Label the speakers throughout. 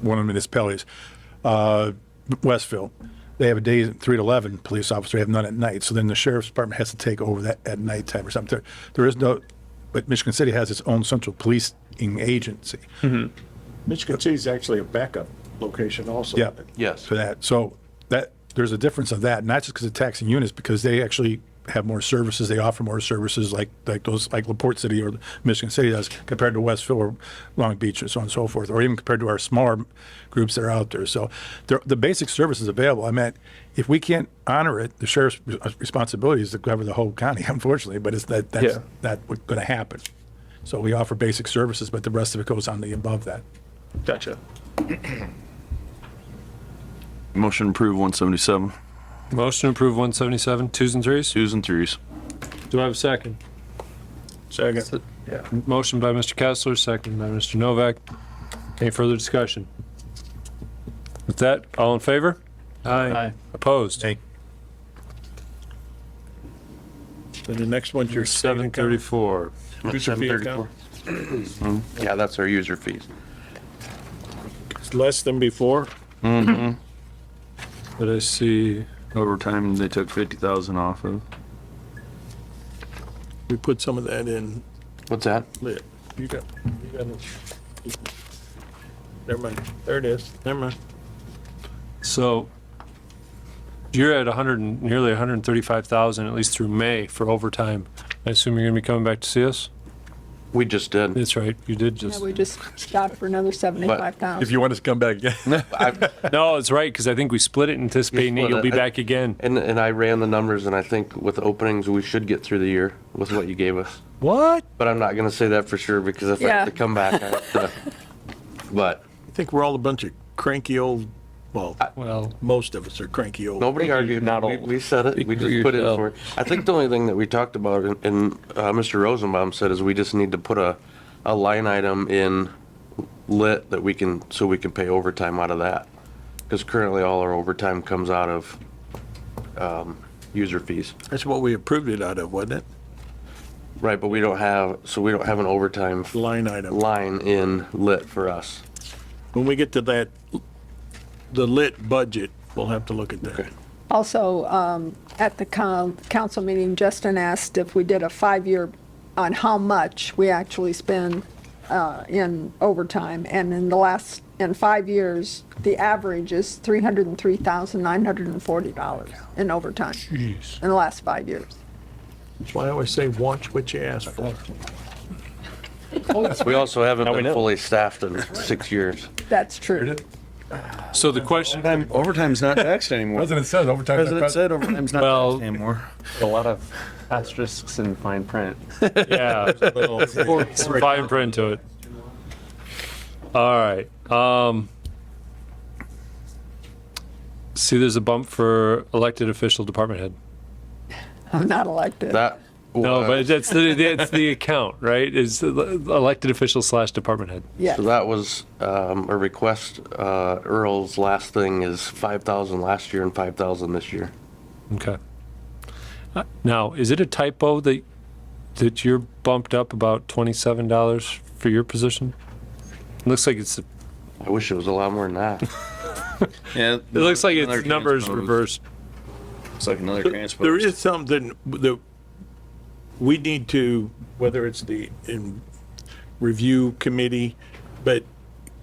Speaker 1: one of the municipalities, uh, Westville. They have a day at three to eleven police officer. They have none at night. So then the sheriff's department has to take over that at nighttime or something. There, there is no, but Michigan City has its own central policing agency
Speaker 2: Michigan City's actually a backup location also.
Speaker 1: Yeah.
Speaker 3: Yes.
Speaker 1: for that. So that there's a difference of that, not just because of taxing units, because they actually have more services. They offer more services like like those like Laporte City or Michigan City does compared to Westville or Long Beach and so on and so forth, or even compared to our smaller groups that are out there. So there, the basic service is available. I mean, if we can't honor it, the sheriff's responsibility is to cover the whole county, unfortunately. But it's that that's
Speaker 3: Yeah.
Speaker 1: not what's going to happen. So we offer basic services, but the rest of it goes on the above that.
Speaker 3: Gotcha.
Speaker 4: Motion approved 177.
Speaker 5: Motion to approve 177, twos and threes.
Speaker 4: Twos and threes.
Speaker 5: Do I have a second?
Speaker 2: Second. Yeah.
Speaker 5: Motion by Mr. Kessler, second by Mr. Novak. Any further discussion? With that, all in favor? Aye. Opposed?
Speaker 1: Aye.
Speaker 2: Then the next one's your
Speaker 5: Seven thirty-four.
Speaker 2: User fee account.
Speaker 3: Yeah, that's our user fees.
Speaker 2: It's less than before.
Speaker 5: Did I see?
Speaker 4: Overtime, they took 50,000 off of.
Speaker 2: We put some of that in
Speaker 3: What's that?
Speaker 2: lit. You got, you got. it. Never mind. There it is. Never mind.
Speaker 5: So you're at 100, and- nearly 135,000, at least through May for overtime. I assume you're gonna be coming back to see us?
Speaker 3: We just did.
Speaker 5: That's right, you did
Speaker 6: Yeah,
Speaker 5: just.
Speaker 6: we just stopped for another seventy-five
Speaker 1: If
Speaker 6: thousand.
Speaker 1: you want us to come back again.
Speaker 3: I-
Speaker 5: No, it's right, because I think we split it anticipating that
Speaker 3: split
Speaker 5: you'll be
Speaker 3: it.
Speaker 5: back again.
Speaker 3: And, and I ran the numbers and I think with openings, we should get through the year with what you gave us.
Speaker 5: What?
Speaker 3: But I'm not gonna say that for sure because if I
Speaker 6: Yeah.
Speaker 3: have to come back, I have to. But
Speaker 2: I think we're all a bunch of cranky old, well,
Speaker 3: Uh,
Speaker 5: Well,
Speaker 2: most of us are cranky old.
Speaker 3: nobody argued.
Speaker 7: not
Speaker 3: We-
Speaker 7: old.
Speaker 3: We said it. We
Speaker 7: for
Speaker 3: just put it
Speaker 7: yourself.
Speaker 3: for it. I think the only thing that we talked about and- and, uh, Mr. Rosenbaum said is we just need to put a, a line item in lit that we can, so we can pay overtime out of that. Cause currently all our overtime comes out of, um, user fees.
Speaker 2: That's what we approved it out of, wasn't
Speaker 3: Right, but we don't have, so we don't have an overtime f-
Speaker 2: it? Line item.
Speaker 3: line in lit for us.
Speaker 2: When we get to that, the lit budget, we'll have to look at that.
Speaker 3: Okay.
Speaker 6: Also, um, at the coun- council meeting, Justin asked if we did a five-year on how much we actually spend, uh, in overtime. And in the last, in five years, the average is three hundred and three thousand nine hundred and forty dollars in overtime in the last five years.
Speaker 2: That's why I always say, watch what you ask for.
Speaker 3: We also haven't
Speaker 7: we
Speaker 3: been
Speaker 7: know.
Speaker 3: fully staffed in six years.
Speaker 6: That's true.
Speaker 5: so the question,
Speaker 8: Overtime's not taxed anymore.
Speaker 1: President says overtime.
Speaker 8: President said overtime's not
Speaker 5: Well-
Speaker 8: taxed anymore.
Speaker 7: A lot of asterisks and fine print.
Speaker 5: yeah, some fine print to it. All right, um. See, there's a bump for elected official department head.
Speaker 6: I'm not elected.
Speaker 3: That.
Speaker 5: No,
Speaker 3: wa-
Speaker 5: but that's the, that's the account, right? Is elected official slash department head.
Speaker 6: Yes.
Speaker 3: So that was um, a request. Uh, Earl's last thing is 5,000 last year and 5,000 this year.
Speaker 5: Okay. Uh, Now, is it a typo that, that you're bumped up about twenty-seven dollars for your position? Looks like it's, it
Speaker 3: I wish it was a lot more than that.
Speaker 4: Yeah. It
Speaker 5: looks like it's numbers reversed.
Speaker 4: It's like another transpose.
Speaker 2: There is something that we need to, whether it's the in review committee, but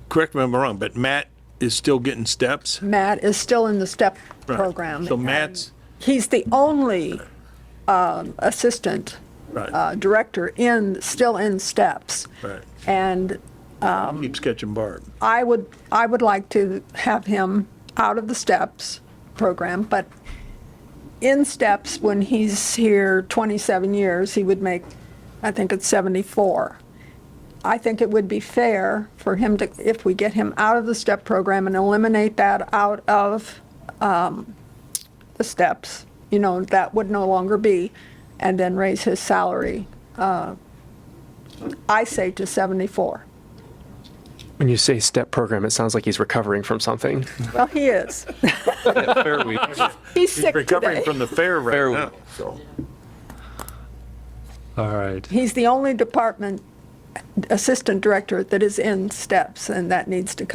Speaker 2: correct me if I'm wrong, but Matt is still getting steps.
Speaker 6: Matt is still in the STEP program.
Speaker 2: So Matt's,
Speaker 6: He's the only um, assistant uh,
Speaker 2: right,
Speaker 6: director in, still in steps.
Speaker 2: right,
Speaker 6: And
Speaker 2: keeps catching Barb.
Speaker 6: I would, I would like to have him out of the steps program, but in steps, when he's here 27 years, he would make, I think it's 74. I think it would be fair for him to, if we get him out of the step program and eliminate that out of um, the steps, you know, that would no longer be, and then raise his salary, uh, I say to 74.
Speaker 7: When you say step program, it sounds like he's recovering from something.
Speaker 6: Well, he is.
Speaker 7: Fair week.
Speaker 6: He's sick
Speaker 2: Recovering
Speaker 6: today.
Speaker 2: from the fair right now, so.
Speaker 5: All right.
Speaker 6: He's the only department assistant director that is in steps, and that needs to come